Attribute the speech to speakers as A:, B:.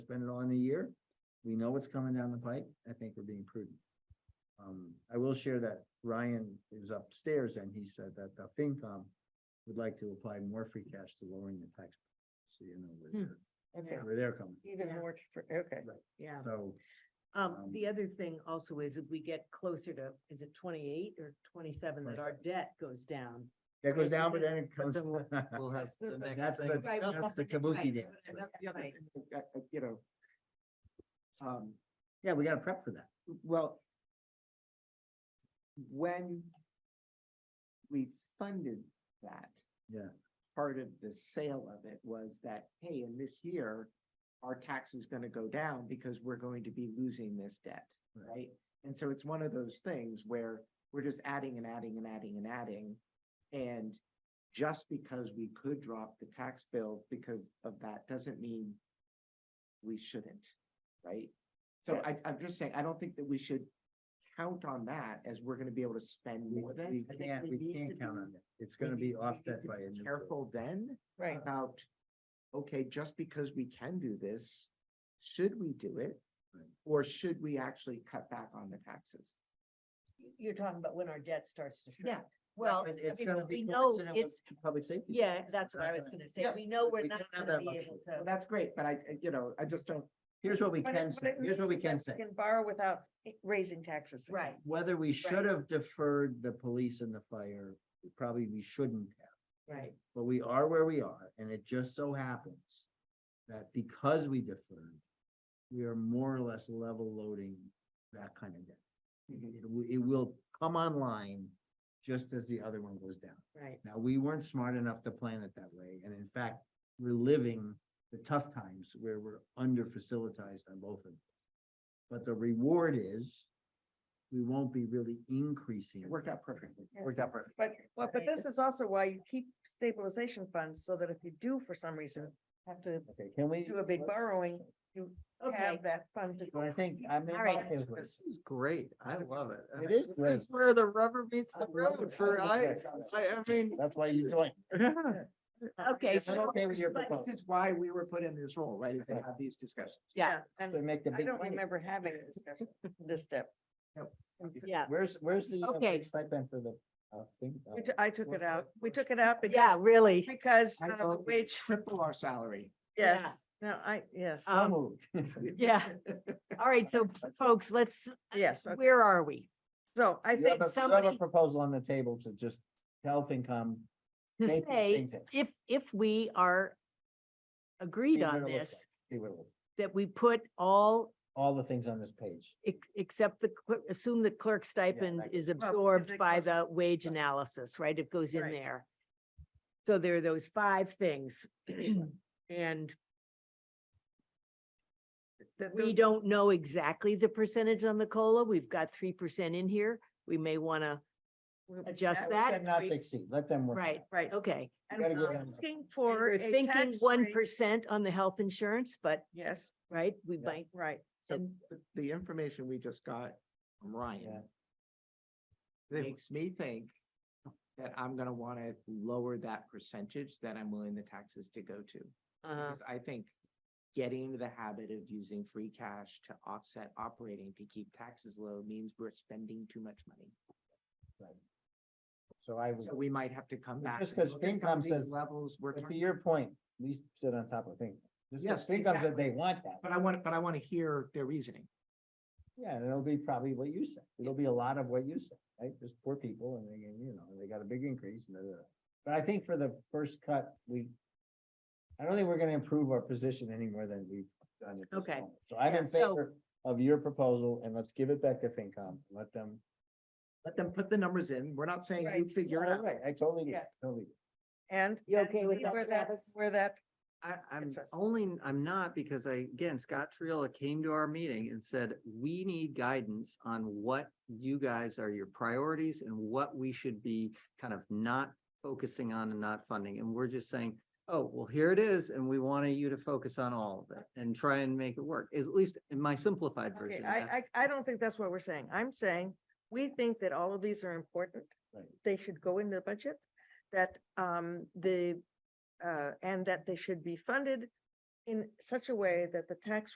A: spend it all in a year. We know what's coming down the pipe. I think we're being prudent. Um, I will share that Ryan is upstairs and he said that the FinCom would like to apply more free cash to lowering the tax. So you know,
B: Hmm.
A: where they're, where they're coming.
C: Even
B: Yeah.
C: more, tr- okay.
B: Yeah.
A: So
B: Um,
A: Um,
B: the other thing also is if we get closer to, is it twenty-eight or twenty-seven, that our debt goes down.
A: that goes
B: Right,
A: down, but
B: because-
A: then it comes.
B: then we'll-
A: That's
D: We'll have
C: That's
D: the
C: the-
D: next
A: that's
D: thing.
A: the-
B: Right, well,
A: the kabuki
B: right,
A: dance.
B: and
A: right?
B: that's the other thing.
C: I- I- uh, You know, um,
A: Yeah, we gotta prep for that.
C: well, when we funded that.
A: Yeah.
C: Part of the sale of it was that, hey, in this year, our tax is gonna go down because we're going to be losing this debt,
A: Right.
C: right? And so it's one of those things where we're just adding and adding and adding and adding. And just because we could drop the tax bill because of that doesn't mean we shouldn't, right? So I, I'm just saying, I don't think that we should count on that as we're gonna be able to spend
A: We
C: more than.
A: we
C: I think
A: can't, we
C: need to
A: can't count
C: be-
A: on it. It's
C: we
A: gonna
C: need- we
A: be
C: need
A: offset
C: to
A: by.
C: be
A: a new bill.
C: Careful then
B: Right.
C: about, okay, just because we can do this, should we do it?
A: Right.
C: Or should we actually cut back on the taxes?
B: You're talking about when our debt starts to
C: Yeah.
B: shrink. Well,
A: But
B: I
A: It's
B: mean,
A: gonna
B: we
A: be
B: know
A: coincident with
B: it's,
A: public safety.
B: yeah,
A: plans.
B: that's
A: We're
B: what I
A: not
B: was
A: gonna-
B: gonna say.
C: yeah,
B: We know we're
A: we
B: not
A: don't have
B: gonna
A: that
B: be able
A: luxury.
C: Well,
B: to.
C: that's great, but I, I- you know, I just don't,
A: Here's what we
E: But it-
A: can
E: but
A: say.
E: it
A: Here's what
E: means
A: we
E: is
A: can
E: that
A: say.
E: we Can borrow without i- raising taxes. again.
B: Right,
A: Whether we should
B: Right.
A: have deferred the police and the fire, probably we shouldn't have.
B: right.
A: But we are where we are, and it just so happens that because we deferred, we are more or less level loading that kind of debt. It wi- It will come online just as the other one goes down.
B: Right.
A: Now, we weren't smart enough to plan it that way, and in fact, we're living the tough times where we're under facilitized on both of them. But the reward is, we won't be really increasing.
C: it worked out perfectly.
A: Worked out perfect.
E: But, well, but
B: Right.
E: this is also why you keep stabilization funds so that if you do for some reason have to
A: Okay, can we?
E: do a big
A: let's-
E: borrowing,
B: Okay.
E: have that fund to.
A: But I think I'm. in
B: All right.
A: my favor.
D: This is great. I love it. I
A: It
D: mean,
A: is great.
D: This is where the rubber meets the
A: I love
D: road
A: it.
D: for
A: I
D: I,
A: love it.
D: I, I mean.
A: That's why you joined.
B: Okay.
A: I'm
B: so-
A: okay with your
B: but-
A: proposal.
C: This is why we were put in this role, right, is to
A: Right.
C: have these discussions.
B: Yeah,
E: And
A: To make the
E: I
A: big.
E: don't
A: money.
E: remember having a discussion, this step.
B: yeah.
A: Where's, where's the? uh,
B: Okay.
A: big Stipend for the, uh, thing. uh,
E: We t- I took
A: what's
E: it
A: that?
E: out. We took it out
B: Yeah,
E: because,
B: really.
E: because
C: I
E: uh, the
C: vote we
E: wage,
C: triple our salary.
E: yes, no, I, yes.
A: So
B: Um,
A: moved.
B: Yeah. All right, so folks, let's,
E: Yes, okay.
B: where are we?
E: So I
A: You have
E: think
A: a, you have a
B: somebody-
A: proposal on the table to just tell FinCom.
B: To
A: take these
B: say,
A: things in,
B: if, if we are agreed
A: See what
B: on
A: it looks
B: this,
A: see what it will-
B: that we put all,
A: All the things on this page.
B: ex- except the, clerk- assume the clerk stipend
A: that
B: is
E: because
B: absorbed
E: it
B: by
E: goes-
B: the wage analysis, right? It goes in
E: Right.
B: there. So there are those five things. And
E: that
B: we
E: the-
B: don't know exactly the percentage on the COLA. We've got three percent in here. We may want to,
E: we-
B: adjust
E: was
B: that.
A: Said Not to
E: tweak,
A: exceed, let them work. it
B: Right.
A: out.
E: Right.
B: okay.
E: And
A: gotta give
E: we're
A: them-
E: looking
B: And
E: for
B: we're
E: a
B: thinking
E: tax
B: one
E: rate-
B: percent on the health insurance, but,
E: Yes,
B: right, we
A: Yeah.
B: might,
E: right.
C: So
B: And-
C: the- the information we just got from Ryan makes me think that I'm gonna wanna lower that percentage that I'm willing the taxes to go to.
B: uh,
C: Because I think getting into the habit of using free cash to offset operating to keep taxes low means we're spending too much money.
A: Right. So I would.
C: So we might have to come
A: But
C: back.
A: just
C: and
A: 'cause
C: look at some of
A: FinCom says-
C: these Levels, we're,
A: But to
C: talking-
A: your point, we sit on top of things. Just 'cause
C: Yes,
A: FinCom said
C: exactly.
A: they want that.
C: but I want, but I wanna hear their reasoning.
A: Yeah, and it'll be probably what you said. It'll be a lot of what you said, right? There's poor people and they, you know, they got a big increase. and da, da, da. But I think for the first cut, we, I don't think we're gonna improve our position any more than we've done at this
B: Okay.
A: moment. So I'm
B: Yeah,
A: in
B: so-
A: favor of your proposal and let's give it back to FinCom, let them.
C: Let them put the numbers in. We're not saying you
E: Right.
C: figure it out.
A: Right, I totally, agree,
E: Yeah.
A: totally.
E: And.
B: You
E: and
B: okay with
E: see
B: that,
E: Where that,
B: Travis?
E: where that,
D: I, I'm
E: It's us.
D: only, I'm not because I, again, Scott Triola came to our meeting and said, we need guidance on what you guys are your priorities and what we should be kind of not focusing on and not funding. And we're just saying, oh, well, here it is, and we wanted you to focus on all of it and try and make it work, is at least in my simplified
E: okay,
D: version.
E: I,
D: that's-
E: I, I don't think that's what we're saying. I'm saying, we think that all of these are important.
A: Right.
E: They should go in the budget, that, um, the, uh, and that they should be funded in such a way that the tax